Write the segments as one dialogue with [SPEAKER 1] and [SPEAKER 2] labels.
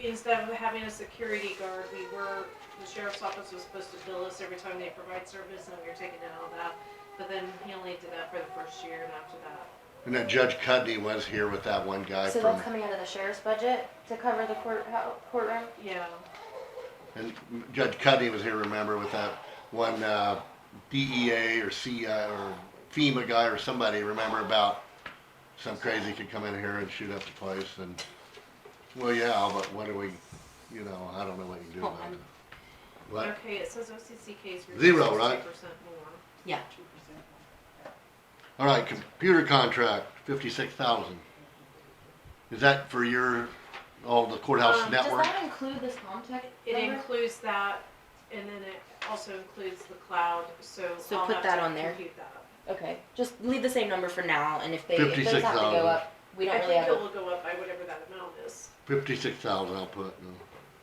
[SPEAKER 1] instead of having a security guard, we were, the sheriff's office was supposed to bill us every time they provide service and we were taking in all that. But then he only did that for the first year and after that,
[SPEAKER 2] And that Judge Cuddy was here with that one guy
[SPEAKER 3] So
[SPEAKER 2] from,
[SPEAKER 3] that's coming out of the sheriff's budget to cover the court, how- courtroom?
[SPEAKER 1] yeah.
[SPEAKER 2] and Judge Cuddy was here, remember, with that one, uh, DEA or C, uh, or FEMA guy or somebody, remember about some crazy could come in here and shoot up the place and, well, yeah, but what do we, you know, I don't know what you do
[SPEAKER 4] Hold
[SPEAKER 2] about
[SPEAKER 4] on.
[SPEAKER 2] it. What?
[SPEAKER 1] Okay, it says OCC case.
[SPEAKER 2] Zero, right?
[SPEAKER 1] percent more.
[SPEAKER 4] Yeah,
[SPEAKER 2] All right, computer contract, fifty-six thousand. Is that for your, all the courthouse
[SPEAKER 1] Um,
[SPEAKER 3] Does
[SPEAKER 2] network?
[SPEAKER 3] that include this Comtech
[SPEAKER 1] It
[SPEAKER 3] number?
[SPEAKER 1] includes that and then it also includes the cloud, so
[SPEAKER 4] So
[SPEAKER 1] I'll
[SPEAKER 4] put
[SPEAKER 1] have
[SPEAKER 4] that
[SPEAKER 1] to
[SPEAKER 4] on there.
[SPEAKER 1] compute that.
[SPEAKER 4] okay, just leave the same number for now, and if they, if those have to
[SPEAKER 2] 56,000.
[SPEAKER 4] go up, we
[SPEAKER 1] I
[SPEAKER 4] don't really
[SPEAKER 1] think
[SPEAKER 4] have
[SPEAKER 1] it
[SPEAKER 4] a.
[SPEAKER 1] will go up by whatever that amount is.
[SPEAKER 2] Fifty-six thousand, I'll put. no.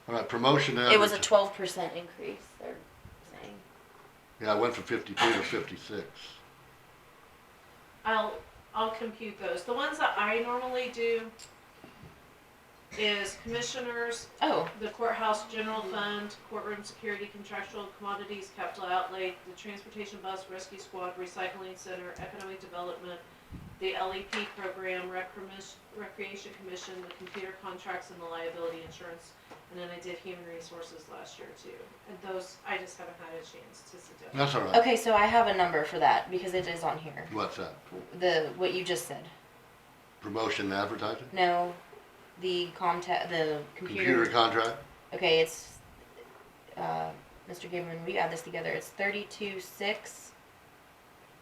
[SPEAKER 2] All right, promotion to
[SPEAKER 4] It was a
[SPEAKER 2] adverti-
[SPEAKER 4] twelve percent increase, they're saying.
[SPEAKER 2] Yeah, I went from fifty-two to fifty-six.
[SPEAKER 1] I'll, I'll compute those. The ones that I normally do is commissioners,
[SPEAKER 4] Oh,
[SPEAKER 1] the courthouse general fund, courtroom security, contractual commodities, capital outlay, the transportation bus, rescue squad, recycling center, economic development, the LEP program, rec- commis- recreation commission, the computer contracts and the liability insurance. And then I did human resources last year too. And those, I just haven't had a chance to sit down.
[SPEAKER 2] That's all right.
[SPEAKER 4] okay, so I have a number for that, because it is on here,
[SPEAKER 2] What's that?
[SPEAKER 4] the, what you just said.
[SPEAKER 2] Promotion to advertising?
[SPEAKER 4] No, the Comtech, the
[SPEAKER 2] Computer
[SPEAKER 4] computer,
[SPEAKER 2] contract?
[SPEAKER 4] okay, it's, uh, Mr. Gableman, we add this together, it's thirty-two, six,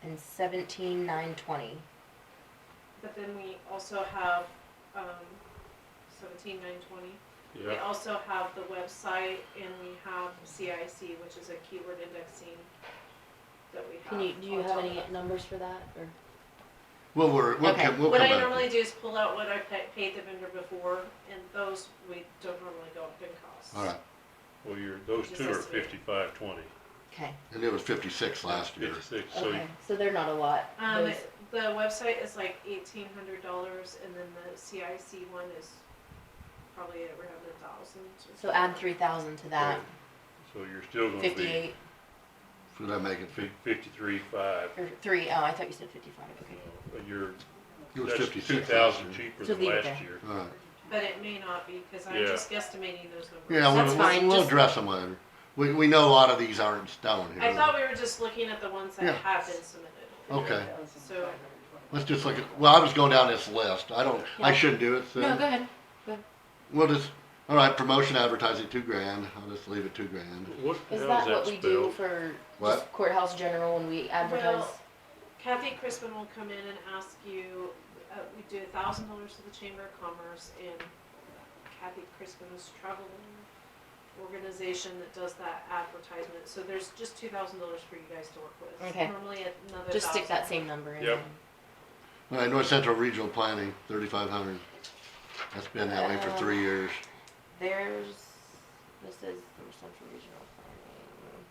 [SPEAKER 4] and seventeen, nine, twenty.
[SPEAKER 1] But then we also have, um, seventeen nine twenty. We
[SPEAKER 5] Yeah,
[SPEAKER 1] also have the website and we have CIC, which is a keyword indexing that we have.
[SPEAKER 4] Can you, do you
[SPEAKER 1] on
[SPEAKER 4] have
[SPEAKER 1] top
[SPEAKER 4] any
[SPEAKER 1] of that.
[SPEAKER 4] numbers for that, or?
[SPEAKER 2] Well, we're, we'll
[SPEAKER 4] Okay.
[SPEAKER 2] come, we'll
[SPEAKER 1] What
[SPEAKER 2] come
[SPEAKER 1] I
[SPEAKER 2] back.
[SPEAKER 1] normally
[SPEAKER 2] to-
[SPEAKER 1] do is pull out what I pa- paid the vendor before and those we don't normally go up in costs.
[SPEAKER 2] All right,
[SPEAKER 5] well, you're, those
[SPEAKER 1] Just
[SPEAKER 5] two are
[SPEAKER 1] has to be-
[SPEAKER 5] fifty-five, twenty.
[SPEAKER 4] Okay,
[SPEAKER 2] and it was fifty-six last year.
[SPEAKER 5] Fifty-six, so
[SPEAKER 4] okay, so they're not a lot,
[SPEAKER 1] Um,
[SPEAKER 4] those-
[SPEAKER 1] the website is like eighteen hundred dollars and then the CIC one is probably around a thousand.
[SPEAKER 4] so add three thousand to that,
[SPEAKER 5] so you're still gonna be
[SPEAKER 4] fifty-eight,
[SPEAKER 2] Should I make it fif-
[SPEAKER 5] fifty-three, five.
[SPEAKER 4] or three, oh, I thought you said fifty-five, okay.
[SPEAKER 5] But you're,
[SPEAKER 2] It was
[SPEAKER 5] that's
[SPEAKER 2] fifty-six.
[SPEAKER 5] two
[SPEAKER 2] last
[SPEAKER 5] thousand
[SPEAKER 2] year.
[SPEAKER 5] cheaper
[SPEAKER 4] So
[SPEAKER 5] than
[SPEAKER 4] leave it
[SPEAKER 5] last
[SPEAKER 4] there.
[SPEAKER 5] year.
[SPEAKER 2] All right.
[SPEAKER 1] But it may not be, cause I'm
[SPEAKER 5] Yeah.
[SPEAKER 1] just guesstimating those numbers.
[SPEAKER 2] Yeah,
[SPEAKER 4] That's
[SPEAKER 2] we'll, we'll,
[SPEAKER 4] fine,
[SPEAKER 2] we'll
[SPEAKER 4] just-
[SPEAKER 2] address them later. We, we know a lot of these aren't in stone here.
[SPEAKER 1] I thought we were just looking at the ones
[SPEAKER 2] Yeah.
[SPEAKER 1] that have been submitted.
[SPEAKER 2] Okay,
[SPEAKER 1] So,
[SPEAKER 2] let's just look at, well, I was going down this list. I don't, I
[SPEAKER 4] Yeah.
[SPEAKER 2] shouldn't do it, so.
[SPEAKER 4] No, go ahead.
[SPEAKER 2] We'll just, all right, promotion advertising, two grand. I'll just leave it two grand.
[SPEAKER 5] What,
[SPEAKER 4] Is that
[SPEAKER 5] how does that
[SPEAKER 4] what we do
[SPEAKER 5] spell?
[SPEAKER 4] for
[SPEAKER 2] What?
[SPEAKER 4] just courthouse general when we advertise?
[SPEAKER 1] Well- Kathy Crispin will come in and ask you, uh, we do a thousand dollars to the Chamber of Commerce and Kathy Crispin's travel organization that does that advertisement. So there's just two thousand dollars for you guys to work with.
[SPEAKER 4] Okay.
[SPEAKER 1] Normally another
[SPEAKER 4] Just stick that
[SPEAKER 1] thousand.
[SPEAKER 4] same number in.
[SPEAKER 5] Yep.
[SPEAKER 2] All right, North Central Regional Planning, thirty-five hundred. That's been that way for three years.
[SPEAKER 4] There's, this is North Central Regional Planning.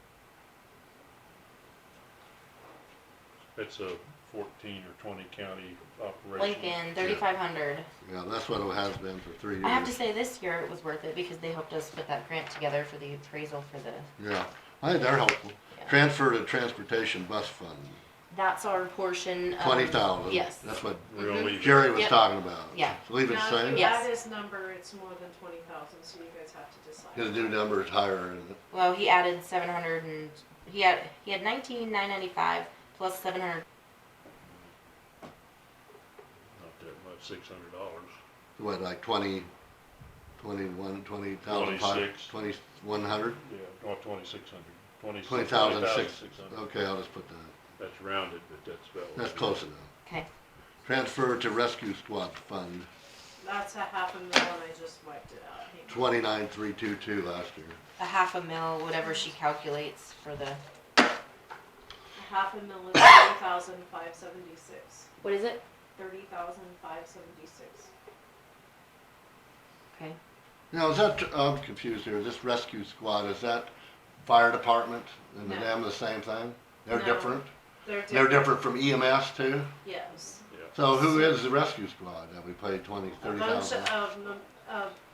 [SPEAKER 5] It's a fourteen or twenty county operation.
[SPEAKER 4] Lincoln, thirty-five hundred.
[SPEAKER 2] Yeah, that's what it has been for three
[SPEAKER 4] I have to
[SPEAKER 2] years.
[SPEAKER 4] say, this year it was worth it because they helped us put that grant together for the appraisal for the,
[SPEAKER 2] Yeah, I think they're helpful.
[SPEAKER 4] Yeah.
[SPEAKER 2] Transfer to Transportation Bus Fund,
[SPEAKER 4] that's our portion um, of.
[SPEAKER 2] twenty thousand.
[SPEAKER 4] Oh, Yes.
[SPEAKER 2] That's what
[SPEAKER 5] We'll leave it.
[SPEAKER 2] Mm-hmm. Jerry was
[SPEAKER 4] Yep.
[SPEAKER 2] talking about.
[SPEAKER 4] Yeah.
[SPEAKER 2] So Leave it the
[SPEAKER 1] Now, if
[SPEAKER 2] same.
[SPEAKER 1] you
[SPEAKER 4] Yeah.
[SPEAKER 1] add
[SPEAKER 4] Yes.
[SPEAKER 1] this number, it's more than twenty thousand, so you guys have to decide.
[SPEAKER 2] His new number is higher, isn't it?
[SPEAKER 4] Well, he added seven hundred and, he had, he had nineteen nine ninety-five plus seven hundred.
[SPEAKER 5] Not that much, six hundred dollars.
[SPEAKER 2] what, like twenty, twenty-one, twenty thousand five?
[SPEAKER 5] Twenty-six.
[SPEAKER 2] Twenty-one hundred?
[SPEAKER 5] Yeah, no, twenty-six hundred, twenty.
[SPEAKER 2] Twenty thousand six,
[SPEAKER 5] 20,600.
[SPEAKER 2] okay, I'll just put that.
[SPEAKER 5] That's rounded, but that's about. what
[SPEAKER 2] That's
[SPEAKER 5] it is.
[SPEAKER 2] close enough.
[SPEAKER 4] Okay,
[SPEAKER 2] Transfer to Rescue Squad Fund,
[SPEAKER 1] That's a half a mil and I just wiped it out. Hang on.
[SPEAKER 2] twenty-nine, three, two, two last year.
[SPEAKER 4] a half a mil, whatever she calculates for the,
[SPEAKER 1] A half a mil is thirty thousand five seventy-six.
[SPEAKER 4] what is it?
[SPEAKER 1] Thirty thousand five seventy-six.
[SPEAKER 4] Okay.
[SPEAKER 2] Now, is that, I'm confused here, this rescue squad, is that fire department and
[SPEAKER 1] No.
[SPEAKER 2] them the same thing? They're
[SPEAKER 1] No.
[SPEAKER 2] different? They're different from EMS too?
[SPEAKER 1] Yes.
[SPEAKER 5] Yeah,
[SPEAKER 2] So who is the rescue squad that we paid twenty,
[SPEAKER 1] A
[SPEAKER 2] thirty
[SPEAKER 1] bunch um,
[SPEAKER 2] thousand?
[SPEAKER 1] of, mem- of